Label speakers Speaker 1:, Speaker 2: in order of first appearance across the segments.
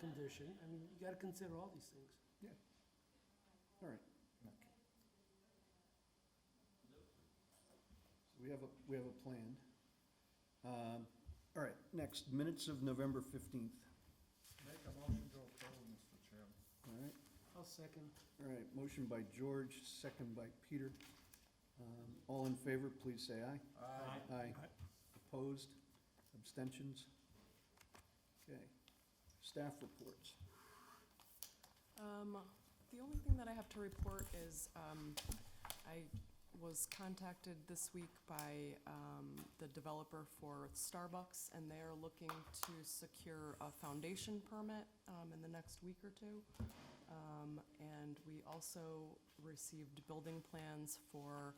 Speaker 1: condition. I mean, you gotta consider all these things.
Speaker 2: Yeah. All right.
Speaker 3: Okay.
Speaker 2: So we have a, we have a plan. Um, All right, next, minutes of November 15th.
Speaker 3: Make a motion to approve, Mr. Chairman.
Speaker 2: All right,
Speaker 1: I'll second.
Speaker 2: all right, motion by George, second by Peter. Um, All in favor, please say aye.
Speaker 3: Aye.
Speaker 2: Aye. Opposed? Abstentions? Okay. Staff reports.
Speaker 4: Um, The only thing that I have to report is um, I was contacted this week by um, the developer for Starbucks, and they are looking to secure a foundation permit um, in the next week or two. Um, And we also received building plans for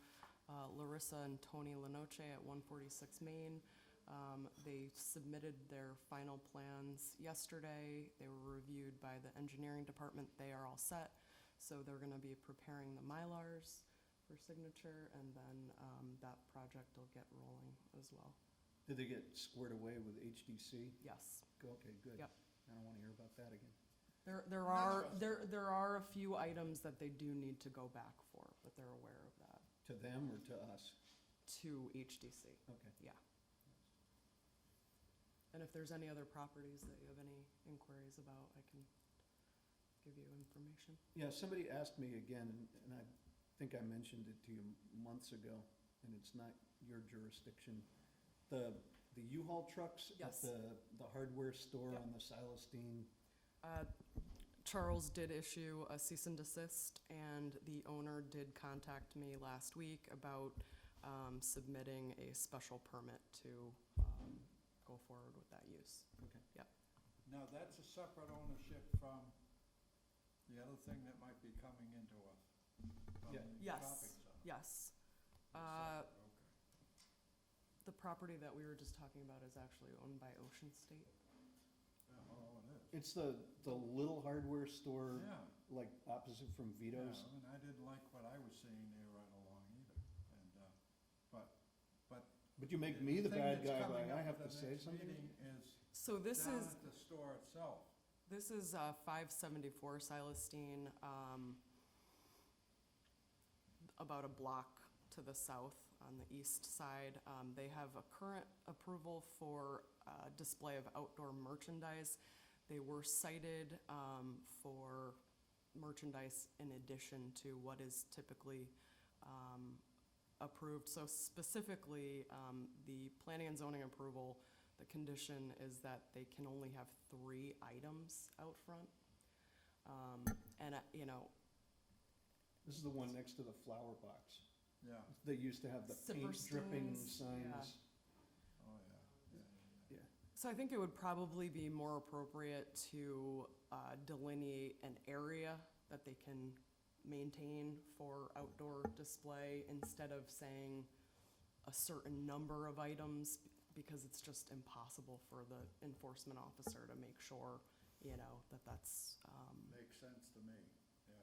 Speaker 4: uh, Larissa and Tony Lenoche at 146 Main. Um, They submitted their final plans yesterday. They were reviewed by the engineering department. They are all set. So they're going to be preparing the Mylars for signature, and then um, that project will get rolling as well.
Speaker 2: Did they get squared away with HDC?
Speaker 4: Yes.
Speaker 2: Go- Okay, good.
Speaker 4: Yep.
Speaker 2: I don't want to hear about that again.
Speaker 4: There, there are, there, there are a few items that they do need to go back for, but they're aware of that,
Speaker 2: To them or to us?
Speaker 4: to HDC.
Speaker 2: Okay.
Speaker 4: Yeah. And if there's any other properties that you have any inquiries about, I can give you information.
Speaker 2: Yeah, somebody asked me again, and- and I think I mentioned it to you months ago, and it's not your jurisdiction. The, the U-Haul trucks at
Speaker 4: Yes.
Speaker 2: the, the hardware store
Speaker 4: Yep.
Speaker 2: on the Silestein,
Speaker 4: Uh, Charles did issue a cease and desist, and the owner did contact me last week about um, submitting a special permit to um, go forward with that use.
Speaker 2: okay.
Speaker 4: Yep.
Speaker 3: Now, that's a separate ownership from the other thing that might be coming into us. from
Speaker 2: Yeah.
Speaker 3: the
Speaker 4: Yes,
Speaker 3: shopping center.
Speaker 4: yes. Uh,
Speaker 3: Separate, okay.
Speaker 4: The property that we were just talking about is actually owned by Ocean State.
Speaker 3: Yeah, Oh, it is.
Speaker 2: It's the, the little hardware store,
Speaker 3: Yeah.
Speaker 2: like opposite from Vito's.
Speaker 3: Yeah, And I didn't like what I was seeing there right along either, and, uh, but, but.
Speaker 2: But you make me the
Speaker 3: thing
Speaker 2: bad
Speaker 3: that's
Speaker 2: guy
Speaker 3: coming
Speaker 2: by, I have
Speaker 3: up at
Speaker 2: to
Speaker 3: the
Speaker 2: say
Speaker 3: next
Speaker 2: something?
Speaker 3: meeting Is
Speaker 4: So this
Speaker 3: down
Speaker 4: is,
Speaker 3: at the store itself.
Speaker 4: This is uh, 574 Silestein, um, about a block to the south on the east side. Um, They have a current approval for uh, display of outdoor merchandise. They were cited um, for merchandise in addition to what is typically um, approved. So specifically, um, the planning and zoning approval, the condition is that they can only have three items out front. Um, And, uh, you know,
Speaker 2: This is the one next to the flower box.
Speaker 3: Yeah,
Speaker 2: They used to have the paint dripping
Speaker 4: Zipperstein's,
Speaker 2: signs.
Speaker 3: oh, yeah, yeah, yeah.
Speaker 2: Yeah,
Speaker 4: So I think it would probably be more appropriate to uh, delineate an area that they can maintain for outdoor display instead of saying a certain number of items because it's just impossible for the enforcement officer to make sure, you know, that that's, um,
Speaker 3: Makes sense to me, yeah.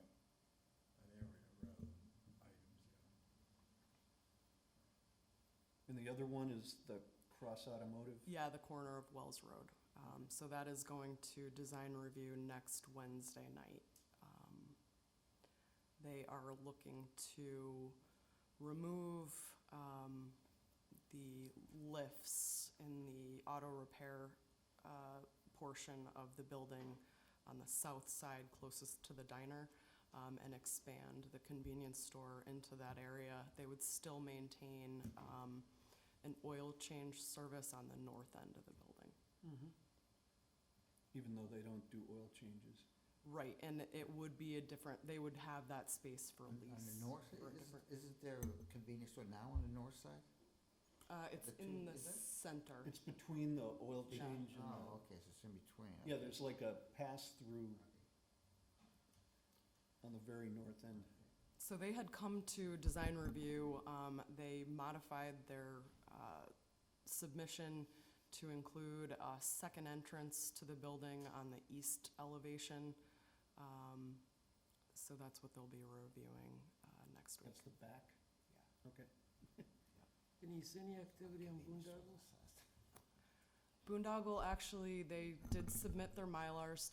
Speaker 3: An area rather than items, yeah.
Speaker 2: And the other one is the Cross Automotive.
Speaker 4: yeah, the corner of Wells Road. Um, So that is going to design review next Wednesday night. Um, They are looking to remove um, the lifts in the auto repair uh, portion of the building on the south side closest to the diner um, and expand the convenience store into that area. They would still maintain um, an oil change service on the north end of the building.
Speaker 1: Mm-hmm.
Speaker 2: even though they don't do oil changes.
Speaker 4: Right, and it would be a different, they would have that space for
Speaker 5: On on the
Speaker 4: lease.
Speaker 5: north,
Speaker 4: or a
Speaker 5: is-
Speaker 4: different-
Speaker 5: isn't there a convenience store now on the north side?
Speaker 4: Uh, it's
Speaker 5: the two-
Speaker 4: in the
Speaker 5: is it?
Speaker 4: center.
Speaker 2: It's between the oil change and
Speaker 5: Oh,
Speaker 2: the,
Speaker 5: okay, so it's in between.
Speaker 2: yeah, there's like a pass-through on the very north end.
Speaker 4: So they had come to design review, um, they modified their, uh, submission to include a second entrance to the building on the east elevation. Um, so that's what they'll be reviewing, uh, next week.
Speaker 2: That's the back?
Speaker 4: Yeah.
Speaker 2: Okay.
Speaker 1: Denise, any activity on Boondoggles?
Speaker 4: Boondoggle, actually, they did submit their Mylars